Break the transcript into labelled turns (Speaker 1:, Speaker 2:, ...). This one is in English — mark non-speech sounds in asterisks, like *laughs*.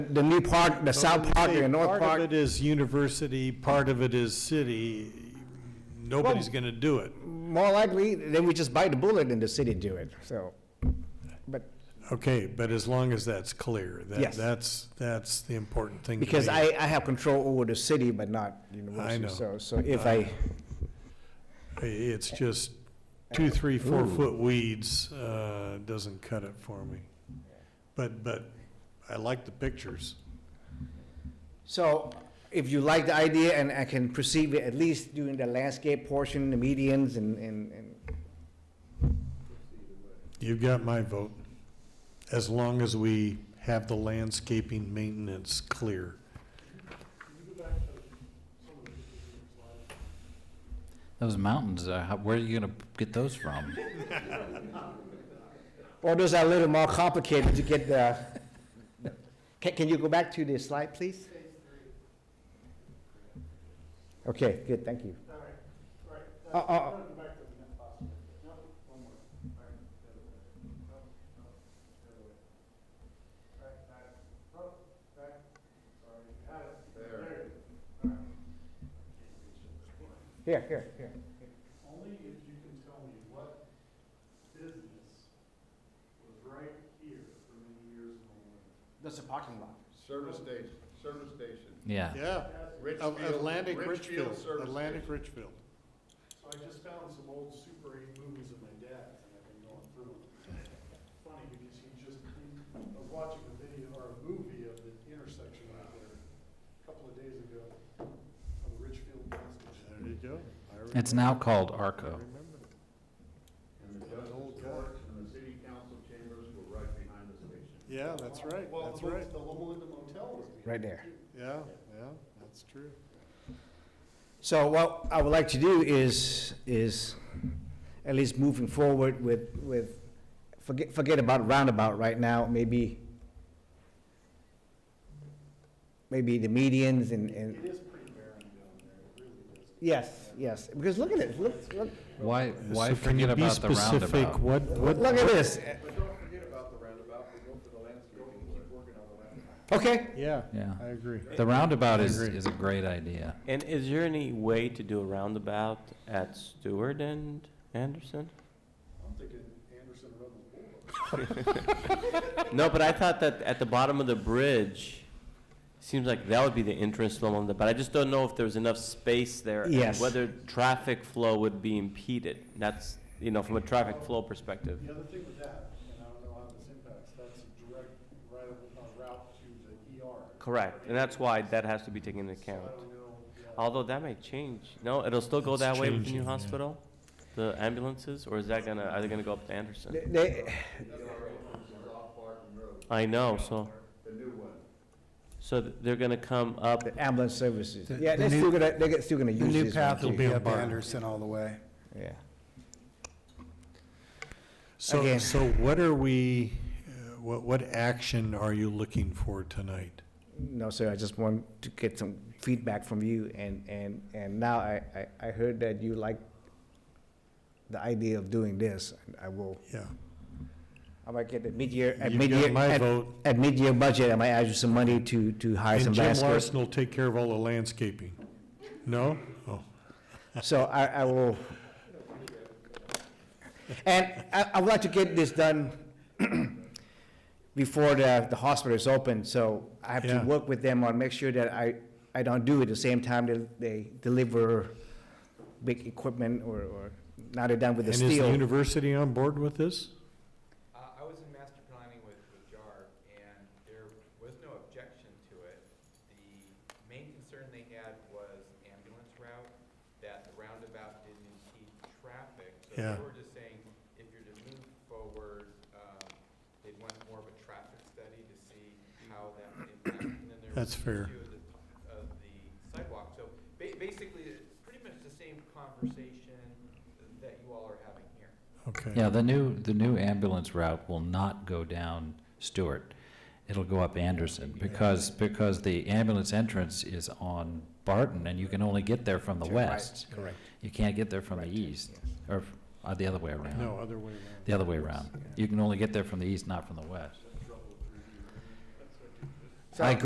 Speaker 1: The new park, the south park,
Speaker 2: Say
Speaker 1: the north
Speaker 2: Part of
Speaker 1: park,
Speaker 2: it is university, part of it is city. Nobody's going to do it.
Speaker 1: more likely, then we just bite the bullet and the city do it, so. But,
Speaker 2: Okay, but as long as that's clear, that,
Speaker 1: Yes.
Speaker 2: that's, that's the important thing. to
Speaker 1: because
Speaker 2: me.
Speaker 1: I, I have control over the city, but not university,
Speaker 2: know.
Speaker 1: so, so if I,
Speaker 2: It's just two, three, four foot weeds, uh, doesn't cut it for me. But, but I like the pictures.
Speaker 1: so if you like the idea and I can perceive it, at least doing the landscape portion, the medians and, and, and
Speaker 2: You've got my vote, as long as we have the landscaping maintenance clear.
Speaker 3: Those mountains, uh, how- where are you going to get those from?
Speaker 1: Or those are a little more complicated to get the, *laughs* can, can you go back to the slide, please? Okay, good, thank you. Uh, uh, Oh, Here, here, here.
Speaker 4: Only if you can tell me what business was right here for many years in the land.
Speaker 1: That's a parking lot.
Speaker 5: Service station, service station.
Speaker 3: Yeah.
Speaker 2: Yeah.
Speaker 5: Richfield-
Speaker 2: Of Atlantic
Speaker 5: Richfield
Speaker 2: Richfield,
Speaker 5: Service
Speaker 2: Atlantic
Speaker 5: Station.
Speaker 2: Richfield.
Speaker 4: So I just found some old Super 8 movies of my dad's, and I've been going through them. Funny, because he just, I was watching a video or a movie of the intersection out there a couple of days ago of the Richfield bus station.
Speaker 2: There you go.
Speaker 3: It's now called Arco.
Speaker 5: And the
Speaker 2: old
Speaker 5: justice
Speaker 2: guy.
Speaker 5: courts and the city council chambers were right behind the station.
Speaker 2: Yeah, that's right,
Speaker 4: Well,
Speaker 2: that's
Speaker 4: the mo-
Speaker 2: right.
Speaker 4: The Loma Linda Motel was behind.
Speaker 1: Right there.
Speaker 2: Yeah, yeah, that's true.
Speaker 1: So what I would like to do is, is at least moving forward with, with, forget, forget about roundabout right now, maybe, maybe the medians and,
Speaker 4: It
Speaker 1: and,
Speaker 4: is pretty barren down there, it really is.
Speaker 1: yes, yes, because look at it, look, look,
Speaker 3: Why, why forget about the roundabout?
Speaker 2: What,
Speaker 1: look at this.
Speaker 5: But don't forget about the roundabout, we go for the landscaping, and keep working on the roundabout.
Speaker 1: Okay,
Speaker 2: Yeah,
Speaker 3: Yeah.
Speaker 2: I agree.
Speaker 3: The roundabout is,
Speaker 2: agree.
Speaker 3: is a great idea.
Speaker 6: And is there any way to do a roundabout at Stewart and Anderson?
Speaker 4: I'm thinking Anderson Rebel Boulevard.
Speaker 6: *laughs* No, but I thought that at the bottom of the bridge, seems like that would be the entrance to Loma, Linda, but I just don't know if there's enough space there. and
Speaker 1: Yes.
Speaker 6: Whether traffic flow would be impeded. That's, you know, from a traffic flow perspective.
Speaker 4: The other thing with that, and I don't know how this impacts, that's a direct right of- uh, route to the ER.
Speaker 6: Correct, and that's why that has to be taken into
Speaker 4: So I
Speaker 6: account.
Speaker 4: don't know, yeah.
Speaker 6: Although that may change. No, it'll still go
Speaker 2: It's
Speaker 6: that way with the
Speaker 2: changing,
Speaker 6: new
Speaker 2: yeah.
Speaker 6: hospital? The ambulances, or is that gonna, are they gonna go up to Anderson?
Speaker 1: They- they,
Speaker 5: Off Barton Road,
Speaker 6: I know, so,
Speaker 5: the new one.
Speaker 6: so th- they're gonna come up
Speaker 1: the ambulance services,
Speaker 7: The-
Speaker 1: yeah,
Speaker 7: the
Speaker 1: they're
Speaker 7: new-
Speaker 1: still gonna, they're still gonna use
Speaker 7: The
Speaker 1: this.
Speaker 7: new
Speaker 1: one
Speaker 7: path will
Speaker 1: too.
Speaker 7: be
Speaker 2: Yeah,
Speaker 7: up
Speaker 2: barn.
Speaker 7: Anderson all the way.
Speaker 1: Yeah.
Speaker 2: So,
Speaker 1: Again.
Speaker 2: so what are we, uh, what, what action are you looking for tonight?
Speaker 1: No, sir, I just want to get some feedback from you, and, and, and now I, I, I heard that you like the idea of doing this, and I will,
Speaker 2: Yeah.
Speaker 1: I might get at mid-year, at
Speaker 2: You've got
Speaker 1: mid-year,
Speaker 2: my
Speaker 1: at,
Speaker 2: vote.
Speaker 1: at mid-year budget, I might add you some money to, to hire some
Speaker 2: And Jim
Speaker 1: basketball.
Speaker 2: Larson will take care of all the landscaping. No? Oh,
Speaker 1: So I, I will. And I, I would like to get this done *clears throat* before the, the hospital is open, so I have to
Speaker 2: Yeah.
Speaker 1: work with them on, make sure that I, I don't do it the same time that they deliver big equipment or, or now they're done with
Speaker 2: and
Speaker 1: the
Speaker 2: is the
Speaker 1: steel.
Speaker 2: university on board with this?
Speaker 8: Uh, I was in master planning with, with JAR, and there was no objection to it. The main concern they had was ambulance route, that the roundabout didn't impede traffic. So
Speaker 2: Yeah.
Speaker 8: they were just saying, if you're to move forward, um, they'd want more of a traffic study to see how that would impact. And then there
Speaker 2: That's
Speaker 8: was the
Speaker 2: fair.
Speaker 8: issue of the, of the sidewalk. So ba- basically, it's pretty much the same conversation that you all are having here.
Speaker 2: Okay.
Speaker 3: Yeah, the new, the new ambulance route will not go down Stewart. It'll go up Anderson because, because the ambulance entrance is on Barton and you can only get there from the
Speaker 1: To the right,
Speaker 3: west.
Speaker 1: correct.
Speaker 3: You can't get there from the east, or uh, the other way around.
Speaker 2: No, other way around.
Speaker 3: The other way around. You can only get there from the east, not from the west.
Speaker 1: I